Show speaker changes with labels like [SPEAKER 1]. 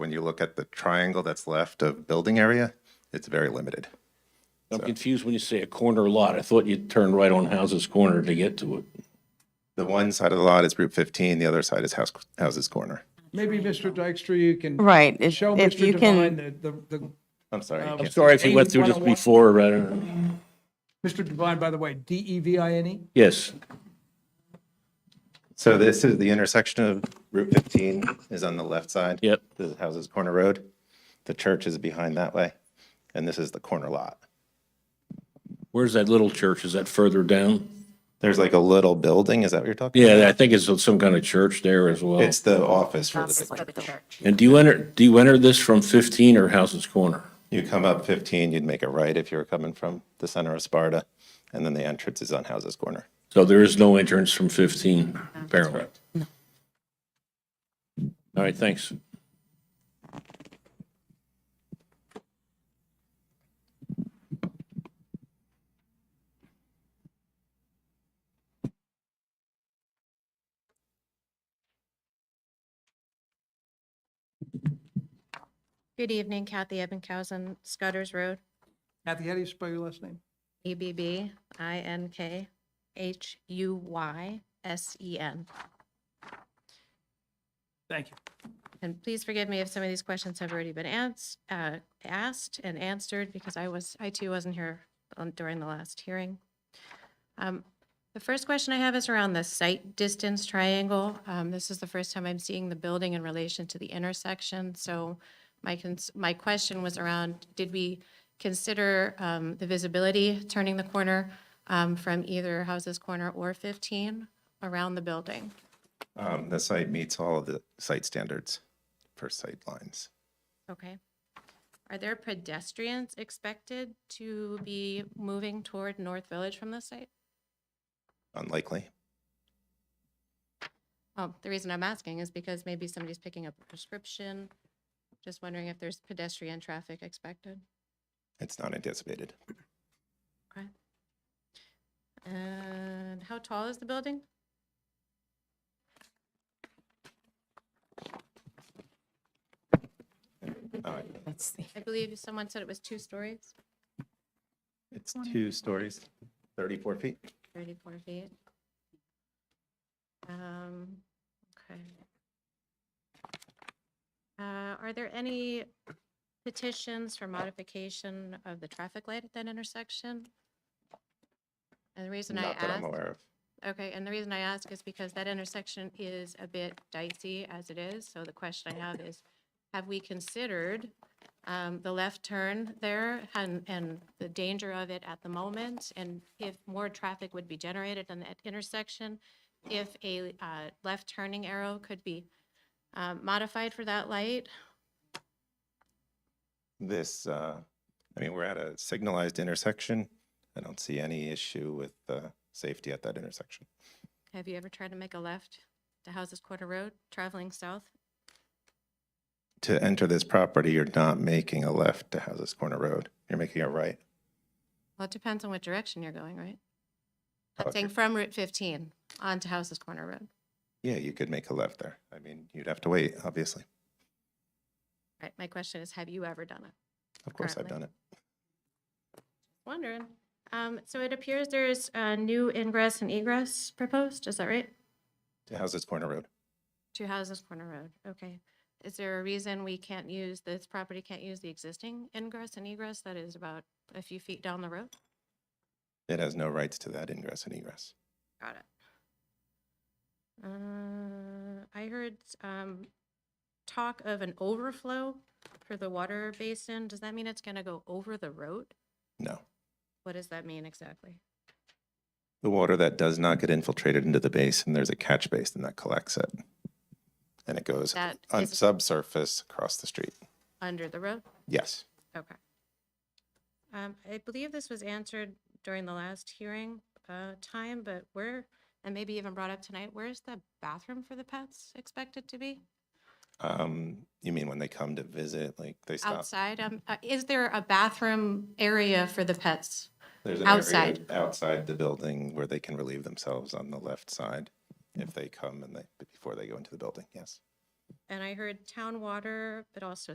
[SPEAKER 1] and you look at the triangle that's left of building area, it's very limited.
[SPEAKER 2] I'm confused when you say a corner lot. I thought you turned right on House's Corner to get to it.
[SPEAKER 1] The one side of the lot is Route 15, the other side is House, Houses Corner.
[SPEAKER 3] Maybe Mr. Dykstra, you can
[SPEAKER 4] Right, if,
[SPEAKER 3] show
[SPEAKER 4] if
[SPEAKER 3] Mr.
[SPEAKER 4] you
[SPEAKER 3] Devine
[SPEAKER 4] can,
[SPEAKER 3] the, the- the,
[SPEAKER 1] I'm sorry. I
[SPEAKER 3] Um,
[SPEAKER 1] can't-
[SPEAKER 2] Sorry if you went through this
[SPEAKER 3] 8101.
[SPEAKER 2] before, but I don't know.
[SPEAKER 3] Mr. Devine, by the way, D E V I N E?
[SPEAKER 2] Yes,
[SPEAKER 1] So this is the intersection of Route 15 is on the left side.
[SPEAKER 2] Yep.
[SPEAKER 1] This is Houses Corner Road. The church is behind that way, and this is the corner lot.
[SPEAKER 2] where's that little church? Is that further down?
[SPEAKER 1] There's like a little building, is that what you're talking?
[SPEAKER 2] Yeah, I think it's some kind of church there as well.
[SPEAKER 1] It's the office for the big church.
[SPEAKER 2] And do you enter, do you enter this from 15 or House's Corner?
[SPEAKER 1] You come up 15, you'd make a right if you were coming from the center of Sparta, and then the entrance is on Houses Corner.
[SPEAKER 2] So there is no entrance from 15, apparently. All right, thanks.
[SPEAKER 5] Good evening, Kathy Ebbinkhousen, Scudders Road,
[SPEAKER 3] Kathy, how do you spell your last name?
[SPEAKER 5] E B B I N K H U Y S E N.
[SPEAKER 3] Thank you.
[SPEAKER 5] And please forgive me if some of these questions have already been ans- uh, asked and answered because I was, I too wasn't here on- during the last hearing. Um, The first question I have is around the site distance triangle. Um, This is the first time I'm seeing the building in relation to the intersection. So my, cons- my question was around, did we consider um, the visibility turning the corner um, from either Houses Corner or 15 around the building?
[SPEAKER 1] Um, The site meets all of the site standards for sight lines.
[SPEAKER 5] Okay. Are there pedestrians expected to be moving toward North Village from this site?
[SPEAKER 1] Unlikely.
[SPEAKER 5] Well, Oh, the reason I'm asking is because maybe somebody's picking up a prescription. Just wondering if there's pedestrian traffic expected.
[SPEAKER 1] It's not anticipated.
[SPEAKER 5] Okay. And how tall is the building?
[SPEAKER 1] All right.
[SPEAKER 4] that's the-
[SPEAKER 5] I believe someone said it was two stories,
[SPEAKER 1] It's two stories, 34 feet.
[SPEAKER 5] 34 feet. Um, okay. Uh, Are there any petitions for modification of the traffic light at that intersection? And the reason I
[SPEAKER 1] Not that
[SPEAKER 5] ask,
[SPEAKER 1] I'm aware of.
[SPEAKER 5] okay, and the reason I ask is because that intersection is a bit dicey as it is. So the question I have is, have we considered um, the left turn there and, and the danger of it at the moment? And if more traffic would be generated on that intersection, if a uh, left turning arrow could be um, modified for that light?
[SPEAKER 1] this, uh, I mean, we're at a signalized intersection. I don't see any issue with uh, safety at that intersection.
[SPEAKER 5] Have you ever tried to make a left to Houses Quarter Road, traveling south?
[SPEAKER 1] To enter this property, you're not making a left to Houses Corner Road. You're making a right.
[SPEAKER 5] Well, it depends on what direction you're going, right? I'm
[SPEAKER 1] Okay.
[SPEAKER 5] saying from Route 15 onto Houses Corner Road.
[SPEAKER 1] Yeah, you could make a left there. I mean, you'd have to wait, obviously.
[SPEAKER 5] Right, my question is, have you ever done it?
[SPEAKER 1] Of course, I've
[SPEAKER 5] Currently.
[SPEAKER 1] done it.
[SPEAKER 5] Wondering. Um, so it appears there's a new ingress and egress proposed, is that right?
[SPEAKER 1] To Houses Corner Road.
[SPEAKER 5] Two Houses Corner Road, okay. Is there a reason we can't use, this property can't use the existing ingress and egress that is about a few feet down the road?
[SPEAKER 1] It has no rights to that ingress and egress.
[SPEAKER 5] Got it. Uh, I heard um, talk of an overflow for the water basin. Does that mean it's going to go over the road?
[SPEAKER 1] No.
[SPEAKER 5] What does that mean exactly?
[SPEAKER 1] The water that does not get infiltrated into the basin, there's a catch basin that collects it. And it goes
[SPEAKER 5] That
[SPEAKER 1] on
[SPEAKER 5] is-
[SPEAKER 1] subsurface across the street.
[SPEAKER 5] Under the road?
[SPEAKER 1] Yes.
[SPEAKER 5] Okay. Um, I believe this was answered during the last hearing uh, time, but where, and maybe even brought up tonight, where's the bathroom for the pets expected to be?
[SPEAKER 1] Um, you mean when they come to visit, like they stop?
[SPEAKER 5] Outside? Um, uh, Is there a bathroom area for the pets?
[SPEAKER 1] There's an area
[SPEAKER 5] outside.
[SPEAKER 1] Outside the building where they can relieve themselves on the left side if they come and they, before they go into the building, yes.
[SPEAKER 5] and I heard town water, but also